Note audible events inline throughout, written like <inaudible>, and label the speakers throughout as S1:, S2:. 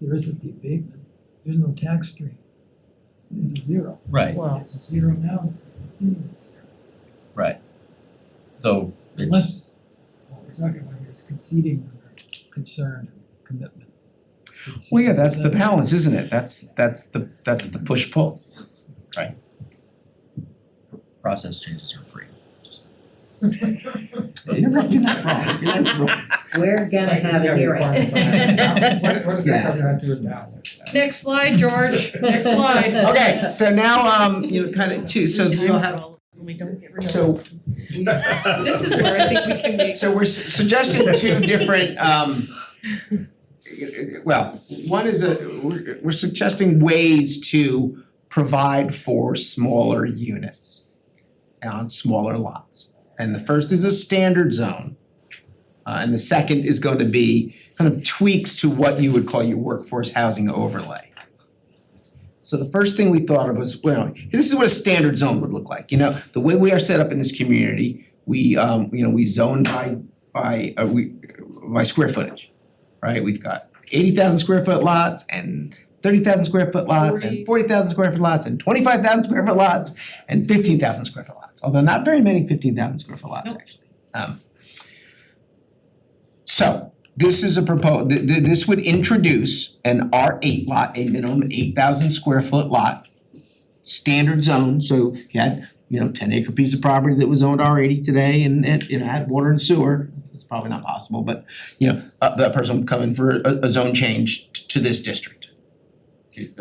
S1: there isn't the abatement, there's no tax stream. It's zero.
S2: Right,
S3: Well-
S1: It's zero now, it's continuous.
S2: right. So it's,
S1: Unless, what we're talking about here is conceding under concern and commitment.
S4: Well, yeah, that's the balance, isn't it? That's that's the that's the push pull.
S2: process changes are free. Just-
S4: You're right, you're not wrong, you're not wrong.
S5: We're gonna have a hearing. <laughs>
S3: What what does that have to do with balance?
S6: Next slide, George, next slide.
S4: <laughs> Okay, so now um you know kind of two, so you'll have
S6: We don't get rid of
S4: so
S6: it. This is where I think we can make.
S4: so we're su- suggesting two different um well, one is a we're we're suggesting ways to provide for smaller units on smaller lots. And the first is a standard zone. Uh and the second is going to be kind of tweaks to what you would call your workforce housing overlay. So the first thing we thought of was, well, this is what a standard zone would look like, you know, the way we are set up in this community, we um, you know, we zone by by uh we by square footage. Right, we've got eighty thousand square foot lots and thirty thousand square foot lots
S6: Forty.
S4: and forty thousand square foot lots and twenty five thousand square foot lots and fifteen thousand square foot lots, although not very many fifteen thousand square foot lots
S6: Nope.
S4: actually. Um so this is a proposal. th- th- this would introduce an R eight lot, a minimum eight thousand square foot lot. Standard zone, so if you had, you know, ten acre piece of property that was owned R eighty today and it, you know, had water and sewer. It's probably not possible, but you know, uh that person would come in for a a zone change t- to this district. It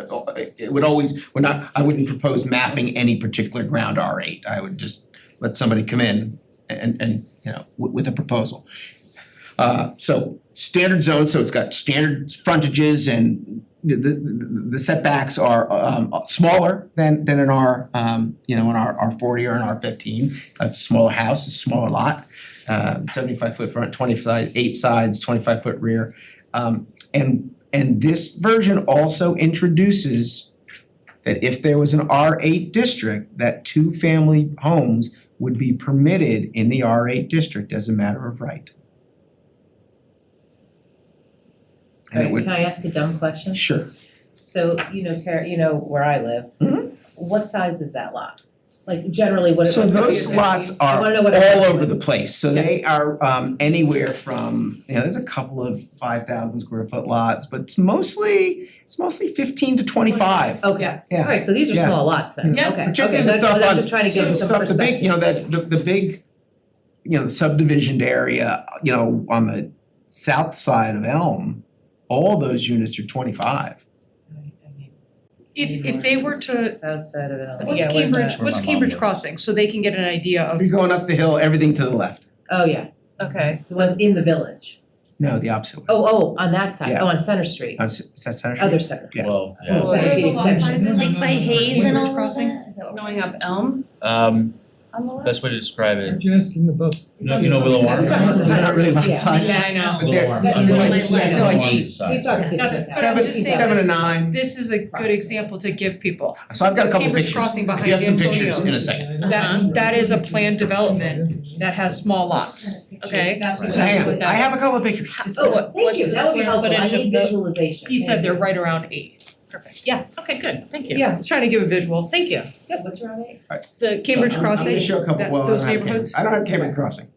S4: it would always, we're not, I wouldn't propose mapping any particular ground R eight, I would just let somebody come in and and, you know, with with a proposal. Uh so standard zone, so it's got standard frontages and the the the setbacks are um smaller than than in our um, you know, in our R forty or in R fifteen. That's a smaller house, a smaller lot, uh seventy five foot front, twenty five, eight sides, twenty five foot rear. Um and and this version also introduces that if there was an R eight district, that two family homes would be permitted in the R eight district as a matter of right. And it
S5: Alright,
S4: would,
S5: can I ask a dumb question?
S4: sure,
S5: So, you know, Tara, you know where I live.
S4: Mhm.
S5: What size is that lot? Like generally, what it
S4: so
S5: looks like
S4: those
S5: is-
S4: lots
S5: I
S4: are
S5: wanna know what. it
S4: all
S5: looks
S4: over
S5: like.
S4: the place, so they are um anywhere from, you know, there's a couple of five thousand square foot lots, but it's mostly, it's mostly fifteen to twenty five.
S5: Okay,
S4: Yeah.
S5: alright, so these are
S4: Yeah.
S5: small lots then,
S6: Yeah.
S5: okay,
S4: Particularly
S5: okay,
S4: the
S5: that's,
S4: stuff on-
S5: I'm just trying to
S4: So
S5: get
S4: the
S5: some
S4: stuff, the
S5: perspective.
S4: big, you know, that, the the big, you know, subdivisioned area, you know, on the south side of Elm, all those units are twenty five.
S6: If, if they were to,
S5: South side of L.
S6: what's
S5: Yeah, where's
S6: Cambridge,
S5: that?
S2: Where
S6: what's
S2: my mom
S6: Cambridge
S2: lives.
S6: Crossing, so they can get an idea of,
S4: You're going up the hill, everything to the left,
S5: Oh, yeah,
S6: okay.
S5: the ones in the village.
S4: no, the opposite way,
S5: Oh, oh, on that side,
S4: Yeah.
S5: oh, on Center Street,
S4: Uh, s- is that Center Street?
S5: other Center.
S4: Yeah.
S2: Well,
S5: Well,
S2: yeah.
S5: Center Street extension.
S1: Like by Hayes
S6: and all crossing?
S7: Going up Elm
S2: Um,
S7: on the left?
S2: best way to describe it,
S1: Aren't you asking about?
S2: No, you know Willow
S5: I'm
S2: Arms?
S5: sorry.
S4: They're
S1: <laughs>
S4: not really lot
S5: Yeah.
S4: sizes.
S6: Yeah, I know.
S4: But they're,
S2: Willow Arms.
S4: they're like,
S5: Yeah.
S4: they're like
S2: Willow Arms is
S4: eight,
S5: We
S2: size.
S5: talking things
S6: That's- but
S5: like that.
S6: I'm
S4: seven,
S6: just saying,
S4: seven to
S6: this-
S4: nine.
S6: This is a good example to give people.
S4: So I've got a couple
S6: Cambridge
S4: pictures.
S6: Crossing
S4: I do have some
S6: behind
S4: pictures in a
S6: Antonio's.
S4: second.
S6: That, that is a planned development that has small lots.
S7: Okay.
S6: That's
S2: Right.
S4: So hang
S6: exactly
S4: on,
S6: what
S4: I
S6: that
S4: have a
S6: is.
S4: couple of pictures.
S7: What-
S5: Oh, thank
S7: what's
S5: you,
S7: the
S5: that would be
S7: square
S5: helpful, I
S7: footage
S5: need
S7: of the-
S5: visualization.
S6: He said they're right around eight.
S7: Perfect, yeah, okay, good, thank you.
S6: Yeah, trying to give a visual.
S7: Thank you.
S5: Yeah, what's around eight?
S7: The
S6: Cambridge
S4: I'm- I'm
S6: Crossing,
S4: gonna show a couple,
S6: that-
S4: well, I
S6: those
S4: don't have
S6: neighborhoods?
S4: Cambridge, I don't have Cambridge Crossing,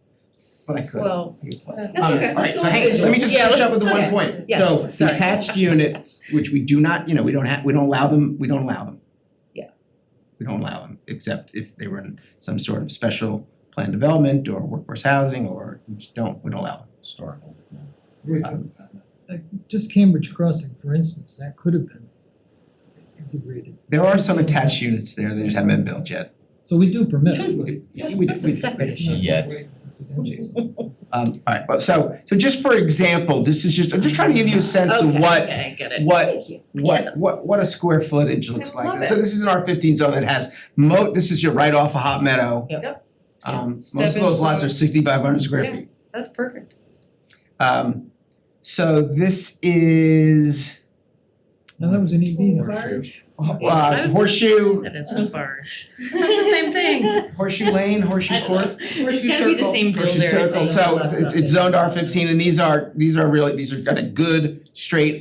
S4: but I could.
S7: Well,
S6: That's okay.
S4: Alright, so hang, let me just finish up with the one
S5: Okay.
S4: point.
S5: Yes,
S4: So
S5: sorry.
S4: detached units, which we do not, you know, we don't have, we don't allow them, we don't allow them.
S5: Yeah.
S4: We don't allow them, except if they were in some sort of special planned development or workforce housing or, we just don't, we don't allow them.
S2: historical.
S1: uh, Just Cambridge Crossing, for instance, that could have been integrated.
S4: There are some attached units there, they just haven't been built yet.
S1: So we do permit.
S4: <laughs>
S1: it, but-
S4: Yeah, we do-
S7: That's a
S4: we do.
S7: separate
S1: It's not
S2: Yet.
S1: great residential.
S4: Um alright, well, so so just for example, this is just, I'm just trying to give you a sense of what
S7: Okay, I get it.
S4: what
S5: Thank you.
S4: what
S7: Yes.
S4: what what a square footage looks
S7: I
S4: like.
S7: love
S4: So this is an R fifteen zone that has mo, this is your right off of Hot Meadow.
S5: Yep.
S4: Um most
S6: Step
S4: of those
S6: into
S4: lots
S6: it.
S4: are sixty five hundred square
S6: Yeah.
S4: feet.
S6: That's perfect.
S4: Um so this is
S1: Now, that was an EB house.
S7: I
S4: uh
S7: was- <laughs>
S4: Horseshoe
S7: That is the barge.
S6: <laughs> the <laughs> same thing.
S4: Horseshoe Lane, Horseshoe
S7: I don't know.
S4: Court,
S7: It's
S6: Horseshoe
S7: gotta be the
S6: circle.
S7: same builder.
S4: Horseshoe Circle. So it's it's zoned R fifteen and these are these are really, these are kind of good straight